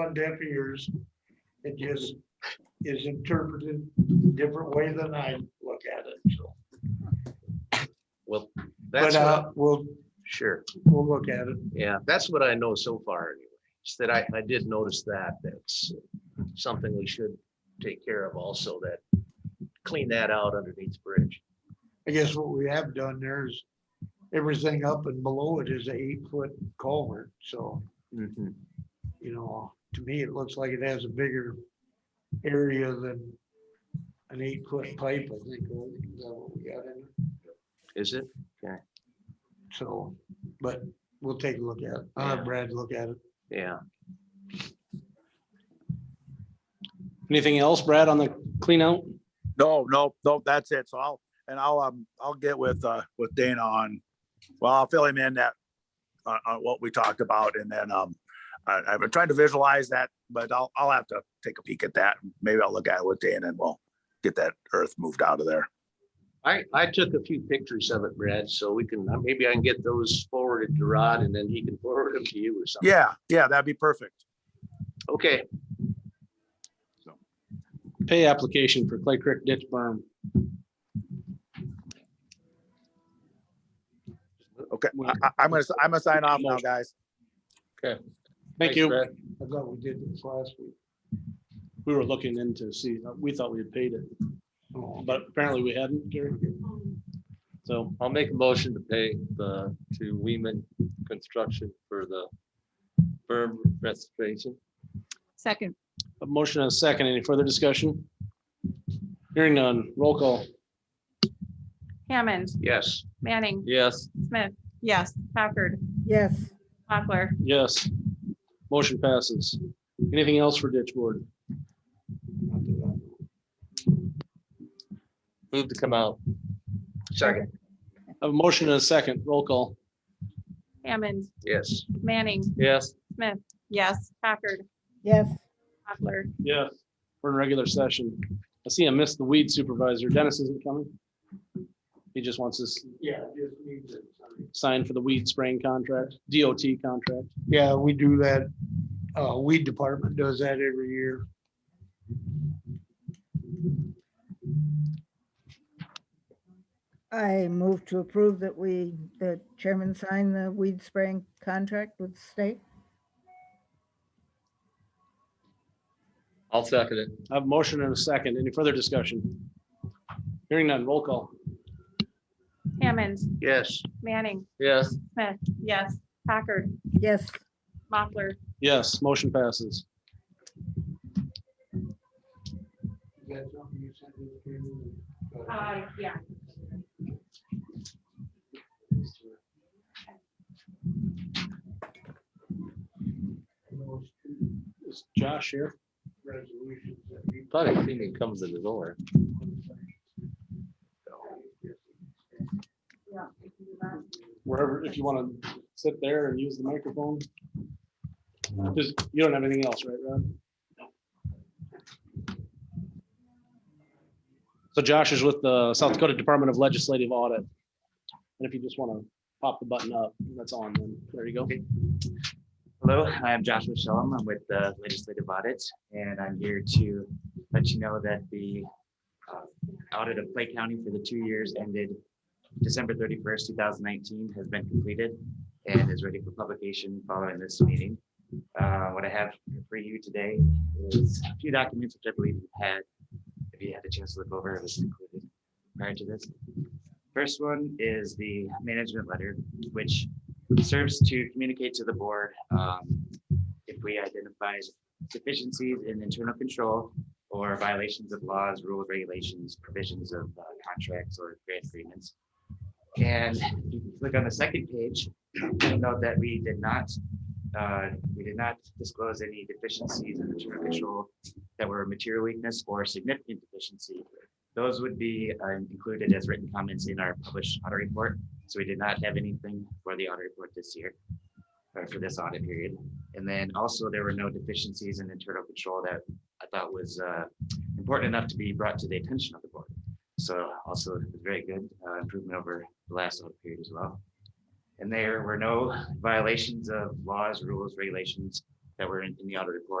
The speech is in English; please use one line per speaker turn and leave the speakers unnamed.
on deaf ears. It just is interpreted different way than I look at it, so.
Well,
But
that's, what-
uh, we'll,
sure,
we'll look at it.
yeah, that's what I know so far anyway. Is that I, I did notice that, that's something we should take care of also, that clean that out underneath the bridge.
I guess what we have done there is everything up and below it is a eight foot culvert, so,
Mm-hmm.
you know, to me, it looks like it has a bigger area than an eight foot pipe, I think, or is that what we got in it?
Is it?
so, but we'll take a look at it. I'll
Yeah.
have Brad look at it.
Yeah,
Anything else, Brad, on the clean out?
No, no, no, that's it. So I'll, and I'll, um, I'll get with, uh, with Dana on, well, I'll fill him in that on, on what we talked about and then, um, I, I've been trying to visualize that, but I'll, I'll have to take a peek at that. Maybe I'll look at it with Dana and we'll get that earth moved out of there.
I, I took a few pictures of it, Brad, so we can, uh, maybe I can get those forwarded to Rod and then he can forward them to you or something.
Yeah, yeah, that'd be perfect.
Okay,
Pay application for Clay Creek ditch berm.
Okay, I, I- I'm gonna, I'm gonna sign off now, guys.
Thank
Thanks,
you.
Brad.
I thought we did this last week.
We were looking into see, uh, we thought we had paid it,
Oh,
but apparently we hadn't, Gary. So
I'll make a motion to pay the, to Weeman Construction for the berm restoration.
Second,
a motion and a second. Any further discussion? Hearing none. Roll call.
Hammond,
yes,
Manning,
Yes,
Smith, yes, Packard,
Yes,
Mochler,
Yes. Motion passes. Anything else for ditch board?
move to come out.
second,
A motion and a second. Roll call.
Hammond,
yes,
Manning,
Yes,
Smith, yes, Packard,
yes,
Mochler,
Yes. We're in regular session. I see I missed the weed supervisor. Dennis isn't coming. He just wants us
Yeah, it just needs it. Sorry.
signed for the weed spraying contract, DOT contract.
Yeah, we do that. Uh, weed department does that every year.
I move to approve that we, the chairman sign the weed spraying contract with the state.
I'll second it.
I have a motion and a second. Any further discussion? Hearing none, roll call.
Hammond,
yes.
Manning,
Yes,
Smith, yes, Packard,
Yes,
Mochler,
Yes, motion passes.
Is that something you sent me to?
uh, yeah.
Those two
Is Josh here?
resolutions that we-
thought he seen him come to the door.
Wherever, if you want to sit there and use the microphone. Just, you don't have anything else, right, Rod? So Josh is with the South Dakota Department of Legislative Audit. And if you just want to pop the button up, that's on, then there you go.
Hello, I'm Joshua Shalom. I'm with the Legislative Audit, and I'm here to let you know that the uh, audit of Clay County for the two years ended December thirty-first, two thousand nineteen has been completed and is ready for publication following this meeting. Uh, What I have for you today is a few documents which I believe you had, if you had a chance to look over, it was included prior to this. First one is the management letter, which serves to communicate to the board um, if we identify deficiencies in internal control or violations of laws, rules, regulations, provisions of uh, contracts or grant agreements. And if you click on the second page, you'll note that we did not, uh, we did not disclose any deficiencies in internal control that were material weakness or significant deficiency. Those would be uh, included as written comments in our published audit report. So we did not have anything for the audit report this year, or for this audit period. And then also there were no deficiencies in internal control that I thought was uh, important enough to be brought to the attention of the board. So also it was very good uh, improvement over the last audit period as well. And there were no violations of laws, rules, regulations that were in in the audit report.